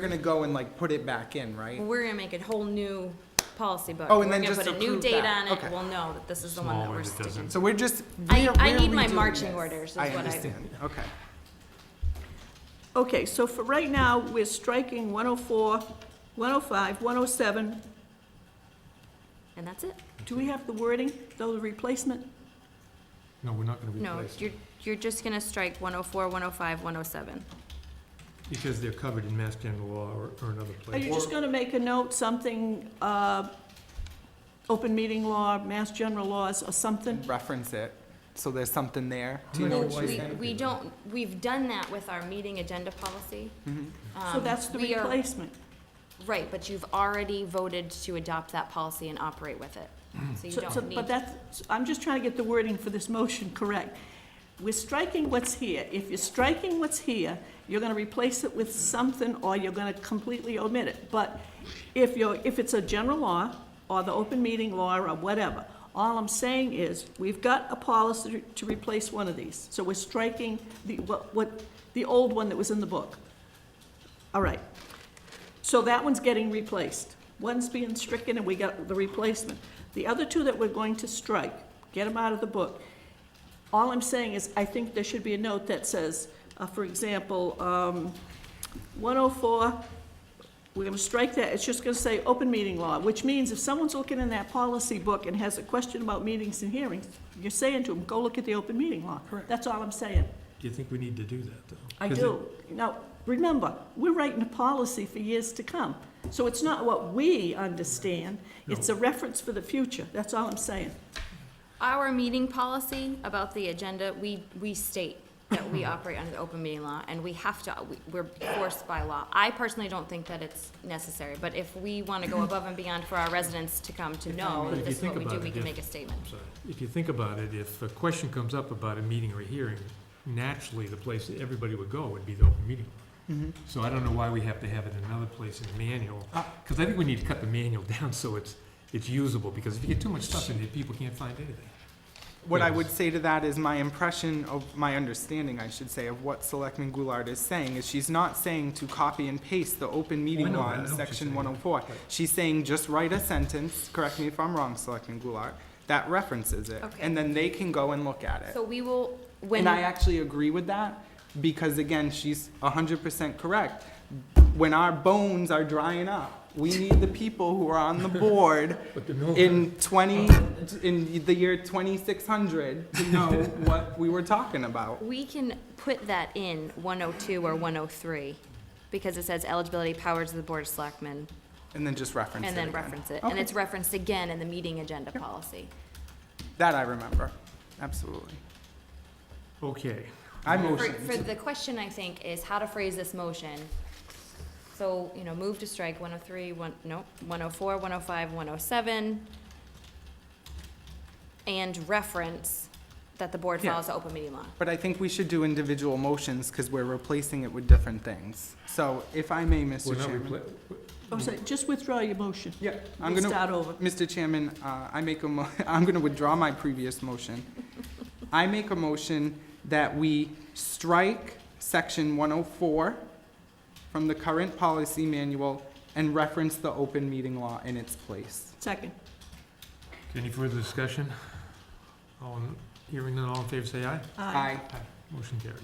We're gonna go and like put it back in, right? We're gonna make a whole new policy book. Oh, and then We're gonna just put a new approve date that. on it, Okay. we'll know that this is the one that we're sticking. So we're just. I- we're- I we're need my redoing marching this. orders is I what I- understand, okay. Okay, so for right now, we're striking 104, 105, 107. And that's it? Do we have the wording, though, the replacement? No, we're not gonna No, replace you're, them, you're just gonna strike 104, 105, 107. because they're covered in Mass General Law or, or another Are you place. just going to make a note, something, uh, open meeting law, mass general laws, or something? Reference it, so there's something there. Do you I'm know not what sure she's We, why. saying? we don't, we've done that with our meeting agenda policy. Mhm. So Um, that's the we are- replacement. Right, but you've already voted to adopt that policy and operate with it, so you Mm. So- so- don't need. But that's, so I'm just trying to get the wording for this motion correct. We're striking what's here. If you're striking what's here, you're gonna replace it with something, or you're gonna completely omit it. But if you're, if it's a general law, or the open meeting law, or whatever, all I'm saying is, we've got a policy to replace one of these. So we're striking the, what, what, the old one that was in the book. All right. So that one's getting replaced. One's being stricken and we got the replacement. The other two that we're going to strike, get them out of the book. All I'm saying is, I think there should be a note that says, uh, for example, um, 104, we're gonna strike that, it's just gonna say open meeting law, which means if someone's looking in that policy book and has a question about meetings and hearings, you're saying to them, go look at the open meeting law. Correct. That's all I'm saying. Do you think we need to do that, though? I 'Cause it- do. Now, remember, we're writing a policy for years to come. So it's not what we understand, it's a reference for the future, that's all I'm saying. Our meeting policy about the agenda, we, we state that we operate under the open meeting law, and we have to, we- we're forced by law. I personally don't think that it's necessary, but if we want to go above and beyond for our residents to come to know If that you this is think what we do, about we it, can if- make a statement. I'm sorry. If you think about it, if a question comes up about a meeting or a hearing, naturally, the place that everybody would go would be the open meeting. law. Mhm. Mm-hmm. So I don't know why we have to have it in another place in the manual, Uh, because I think we need to cut the manual down so it's, it's usable, because if you get too much stuff in there, people can't find anything. What I would say to that is my impression of, my understanding, I should say, of what Selectman Goulart is saying is she's not saying to copy and paste the open meeting know law that. Oh, I in know what she's section saying. one oh four. She's saying just write a sentence, correct me if I'm wrong, Selectman Goulart, that references it. Okay. And then they can go and look at it. So we will, when, and I actually agree with that because again, she's hundred percent correct. When our bones are drying up, we need the people who are on the board But the mill- in twenty, in the year twenty-six hundred to know what we were talking about. we can put that in 102 or 103, because it says eligibility powers of the Board of Selectmen, And then just reference it and then again. reference it. And Okay. it's referenced again in the meeting agenda policy. That I remember, absolutely. Okay, I For, for motioned. the question, I think, is how to phrase this motion. So, you know, move to strike one oh three, one, no, one oh four, one oh five, one oh seven. And reference that the board Yeah. follows the open meeting law. But I think we should do individual motions because we're replacing it with different things. So if I may, we're Mr. not Chairman. repla- Oh, so just withdraw your motion. Yeah, I'm We'll gonna, Start over. Mr. Chairman, uh, I make a mo, I'm gonna withdraw my previous motion. I make a motion that we strike section one oh four from the current policy manual and reference the open meeting law in its place. Second. Any further discussion? All, in- hearing none, all in favor, say aye. Aye. Motion carries.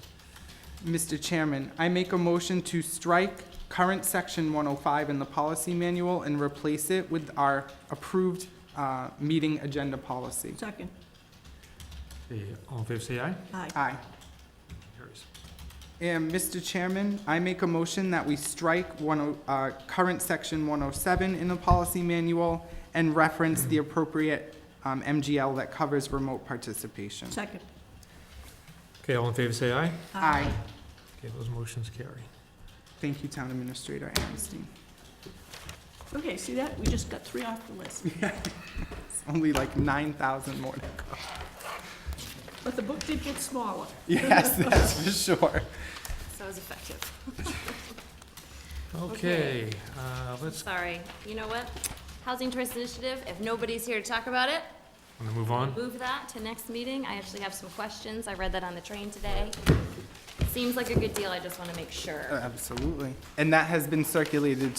Mr. Chairman, I make a motion to strike current section one oh five in the policy manual and replace it with our approved, uh, meeting agenda policy. Second, Okay, All in favor, say aye. aye. Aye. Carries. And Mr. Chairman, I make a motion that we strike one, oh- uh, current section one oh seven in the policy manual and reference the appropriate, um, MGL that covers remote participation. Second, Okay, all in favor, say aye. Aye. Okay, those motions carry. Thank you, Town Administrator Amnesty. okay, see that, we just got three off the list, It's only like nine thousand more. to go. but the book did get smaller. Yes, that's for sure. So it was effective. Okay, uh, let's, Sorry. You know what? Housing Choice Initiative, if nobody's here to talk about it, want to move on? move that to next meeting. I actually have some questions. I read that on the train today. seems like a good deal, I just wanna make sure. Absolutely. And that has been circulated